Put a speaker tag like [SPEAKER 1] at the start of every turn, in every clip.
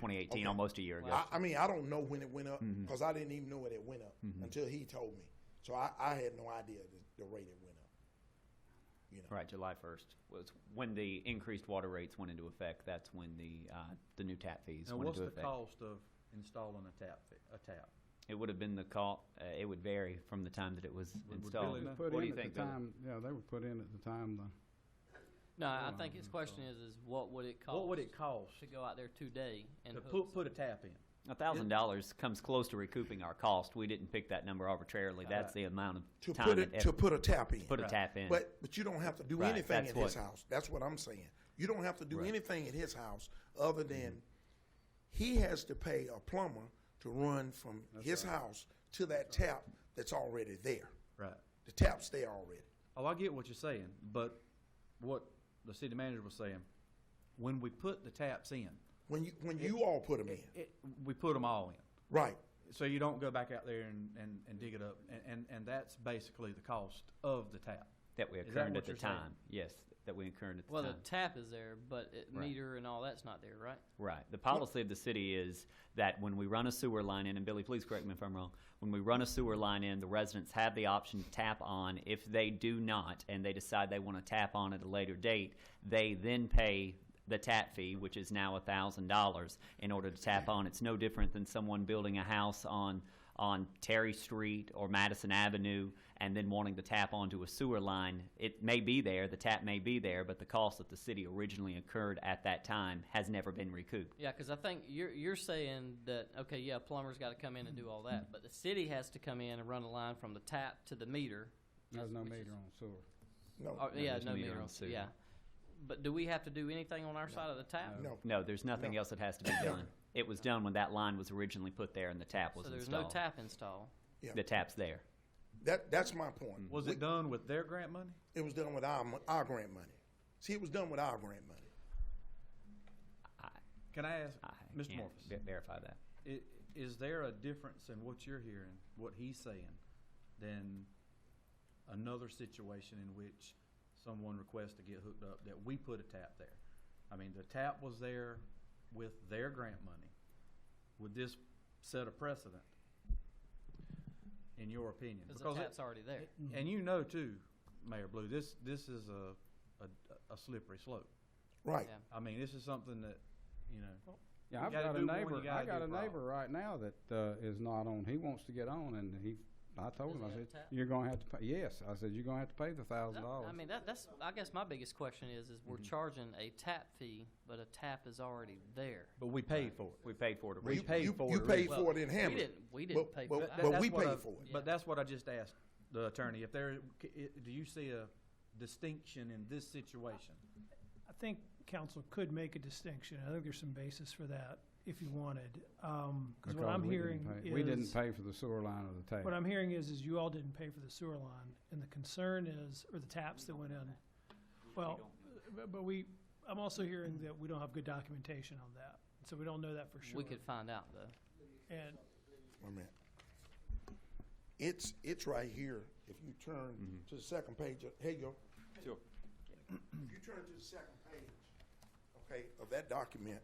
[SPEAKER 1] 2018,
[SPEAKER 2] Okay.
[SPEAKER 1] almost a year ago.
[SPEAKER 2] I, I mean, I don't know when it went up
[SPEAKER 1] Mm-hmm.
[SPEAKER 2] because I didn't even know it had went up until he told me. So I, I had no idea the, the rate it went up. You know,
[SPEAKER 1] Right, July 1st was when the increased water rates went into effect. That's when the, uh, the new tap fees
[SPEAKER 3] Now,
[SPEAKER 1] went
[SPEAKER 3] what's
[SPEAKER 1] into
[SPEAKER 3] the
[SPEAKER 1] effect.
[SPEAKER 3] cost of installing a tap, fi- a tap?
[SPEAKER 1] It would have been the call, uh, it would vary from the time that it was
[SPEAKER 3] Would- would
[SPEAKER 1] installed.
[SPEAKER 3] Billy know?
[SPEAKER 1] What
[SPEAKER 4] Put
[SPEAKER 1] do
[SPEAKER 4] in
[SPEAKER 1] you
[SPEAKER 4] at the
[SPEAKER 1] think, Billy?
[SPEAKER 4] time, yeah, they were put in at the time, the
[SPEAKER 5] No, I think his question is, is what would it cost?
[SPEAKER 3] What would it cost
[SPEAKER 5] To go out there today and
[SPEAKER 3] to
[SPEAKER 5] hook
[SPEAKER 3] put, put a tap in?
[SPEAKER 1] A thousand dollars comes close to recouping our cost. We didn't pick that number arbitrarily. That's
[SPEAKER 3] Right.
[SPEAKER 1] the amount
[SPEAKER 2] to
[SPEAKER 1] of time
[SPEAKER 2] put
[SPEAKER 1] and
[SPEAKER 2] it to
[SPEAKER 1] effort.
[SPEAKER 2] put a tap in,
[SPEAKER 1] Put a tap in.
[SPEAKER 2] but but you don't have to do
[SPEAKER 1] Right,
[SPEAKER 2] anything
[SPEAKER 1] that's
[SPEAKER 2] at his
[SPEAKER 1] what-
[SPEAKER 2] house. That's what I'm saying. You don't have to do
[SPEAKER 1] Right. Mm-hmm.
[SPEAKER 2] anything at his house other than he has to pay a plumber to run from his house to that tap that's already there.
[SPEAKER 3] Right.
[SPEAKER 2] The tap's there already.
[SPEAKER 3] Oh, I get what you're saying, but what the city manager was saying, when we put the taps in,
[SPEAKER 2] When you when you all put them in,
[SPEAKER 3] it, we put them all in.
[SPEAKER 2] right?
[SPEAKER 3] So you don't go back out there and, and, and dig it up, and, and, and that's basically the cost of the tap.
[SPEAKER 1] That we
[SPEAKER 3] Is that
[SPEAKER 1] incurred
[SPEAKER 3] what
[SPEAKER 1] at the
[SPEAKER 3] you're saying?
[SPEAKER 1] time. Yes, that we incurred at the
[SPEAKER 5] Well, the
[SPEAKER 1] time.
[SPEAKER 5] tap is there, but it
[SPEAKER 1] Right.
[SPEAKER 5] meter and all that's not there, right?
[SPEAKER 1] Right. The policy of the city is that when we run a sewer line in, and Billy, please correct me if I'm wrong, when we run a sewer line in, the residents have the option to tap on. If they do not, and they decide they want to tap on at a later date, they then pay the tap fee, which is now thousand dollars, in order to tap on. It's no different than someone building a house on on Terry Street or Madison Avenue and then wanting to tap onto a sewer line, it may be there, the tap may be there, but the cost that the city originally incurred at that time has never been recouped.
[SPEAKER 5] Yeah, because I think you're you're saying that okay, yeah, plumber's got to come in and do all that, but the city has to come in and run a line from the tap to the meter.
[SPEAKER 4] there's no
[SPEAKER 5] which is-
[SPEAKER 4] meter on sewer.
[SPEAKER 2] No,
[SPEAKER 5] or- yeah,
[SPEAKER 1] there's
[SPEAKER 5] no
[SPEAKER 1] meter
[SPEAKER 5] meter.
[SPEAKER 1] on
[SPEAKER 5] on-
[SPEAKER 1] sewer.
[SPEAKER 5] Yeah, but do we have to do anything on our side of the tap?
[SPEAKER 2] no.
[SPEAKER 1] No, there's nothing else that has to be done. It was done when that line was originally put there and the tap was
[SPEAKER 5] So there's no
[SPEAKER 1] installed.
[SPEAKER 5] tap install.
[SPEAKER 2] Yeah.
[SPEAKER 1] The tap's there.
[SPEAKER 2] That that's my point.
[SPEAKER 3] Was
[SPEAKER 2] We-
[SPEAKER 3] it done with their grant money?
[SPEAKER 2] It was done with our mon- our grant money. See, it was done with our grant money.
[SPEAKER 3] Can I ask,
[SPEAKER 1] I
[SPEAKER 3] Mr.
[SPEAKER 1] can't
[SPEAKER 3] Morpheus?
[SPEAKER 1] ve- Verify that.
[SPEAKER 3] I- Is there a difference in what you're hearing, what he's saying, than another situation in which someone requests to get hooked up that we put a tap there? I mean, the tap was there with their grant money. Would this set a precedent, in your opinion?
[SPEAKER 5] Because the
[SPEAKER 3] Because it-
[SPEAKER 5] tap's already there.
[SPEAKER 3] And you know too, Mayor Blue, this, this is a, a, a slippery slope.
[SPEAKER 2] Right.
[SPEAKER 5] Yeah.
[SPEAKER 3] I mean, this is something that, you know,
[SPEAKER 4] Yeah,
[SPEAKER 3] You
[SPEAKER 4] I've
[SPEAKER 3] gotta
[SPEAKER 4] got
[SPEAKER 3] do
[SPEAKER 4] a
[SPEAKER 3] one, you
[SPEAKER 4] neighbor, I
[SPEAKER 3] gotta
[SPEAKER 4] got
[SPEAKER 3] do
[SPEAKER 4] a
[SPEAKER 3] right.
[SPEAKER 4] neighbor right now that, uh, is not on, he wants to get on, and he, I told
[SPEAKER 5] Does
[SPEAKER 4] him,
[SPEAKER 5] he
[SPEAKER 4] I
[SPEAKER 5] have a
[SPEAKER 4] said,
[SPEAKER 5] tap?
[SPEAKER 4] you're gonna have to pay, yes, I said, you're gonna have to pay the thousand
[SPEAKER 5] No,
[SPEAKER 4] dollars.
[SPEAKER 5] I mean, that, that's, I guess my biggest question is, is we're charging a tap fee, but a tap is already there.
[SPEAKER 3] but we paid for it.
[SPEAKER 1] We paid for it
[SPEAKER 3] We
[SPEAKER 1] originally.
[SPEAKER 2] You,
[SPEAKER 3] paid
[SPEAKER 2] you,
[SPEAKER 3] for
[SPEAKER 2] you
[SPEAKER 3] it
[SPEAKER 2] paid
[SPEAKER 5] Well,
[SPEAKER 2] for it in
[SPEAKER 5] we
[SPEAKER 2] Hammond.
[SPEAKER 5] didn't- we didn't
[SPEAKER 2] but,
[SPEAKER 5] pay
[SPEAKER 2] but,
[SPEAKER 5] for
[SPEAKER 3] That-
[SPEAKER 5] it.
[SPEAKER 2] But
[SPEAKER 3] that's
[SPEAKER 2] we
[SPEAKER 3] what
[SPEAKER 2] paid
[SPEAKER 3] I-
[SPEAKER 2] for it.
[SPEAKER 3] But that's what I just asked the attorney, if there, c- i- do you see a distinction in this situation?
[SPEAKER 6] I think council could make a distinction. I think there's some basis for that if you wanted. Um 'cause
[SPEAKER 4] because
[SPEAKER 6] what I'm
[SPEAKER 4] we didn't
[SPEAKER 6] hearing
[SPEAKER 4] pay-
[SPEAKER 6] is.
[SPEAKER 4] We didn't pay for the sewer line or the tap.
[SPEAKER 6] What I'm hearing is, is you all didn't pay for the sewer line, and the concern is, or the taps that went in. Well, but- but we, I'm also hearing that we don't have good documentation on that, so we don't know that for sure.
[SPEAKER 5] We could find out, though.
[SPEAKER 6] And,
[SPEAKER 2] Wait a minute. It's it's right here. If you turn
[SPEAKER 3] Mm-hmm.
[SPEAKER 2] to the second page, of, here you go.
[SPEAKER 1] Sure.
[SPEAKER 2] If you turn to the second page, okay, of that document,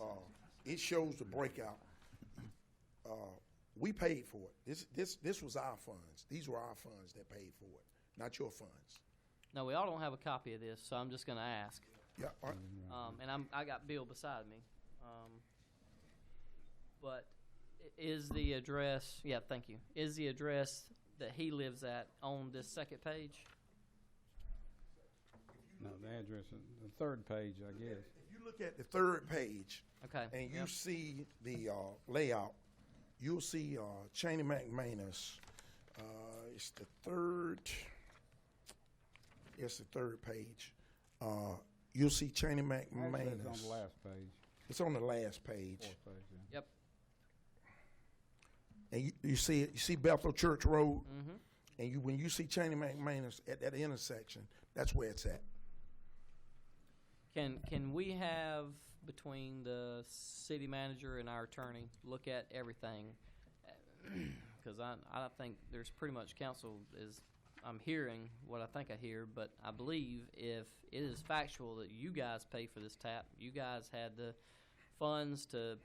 [SPEAKER 2] uh, it shows the breakout. Uh, we paid for it. This this this was our funds. These were our funds that paid for it, not your funds.
[SPEAKER 5] No, we all don't have a copy of this, so I'm just gonna ask.
[SPEAKER 2] Yeah. all right.
[SPEAKER 5] Um, and I'm, I got Bill beside me. Um, but i- is the address, yeah, thank you. Is the address that he lives at on this second page?
[SPEAKER 4] No, the address, is the third page, I guess.
[SPEAKER 2] If you look at the third page,
[SPEAKER 5] Okay.
[SPEAKER 2] and you
[SPEAKER 5] yep.
[SPEAKER 2] see the uh, layout, you'll see uh, Cheney McManus. Uh, it's the third. It's the third page. Uh, you'll see Cheney
[SPEAKER 4] Actually,
[SPEAKER 2] McManus.
[SPEAKER 4] it's on the last page,
[SPEAKER 2] It's on the last page,
[SPEAKER 4] fourth page, yeah.
[SPEAKER 5] Yep,
[SPEAKER 2] and you, you see it. You see Bethel Church Road,
[SPEAKER 5] Mm-hmm.
[SPEAKER 2] and you when you see Cheney McManus at that intersection, that's where it's at.
[SPEAKER 5] Can can we have between the city manager and our attorney look at everything? Because I I think there's pretty much council is I'm hearing what I think I hear, but I believe if it is factual that you guys pay for this tap, you guys had the funds to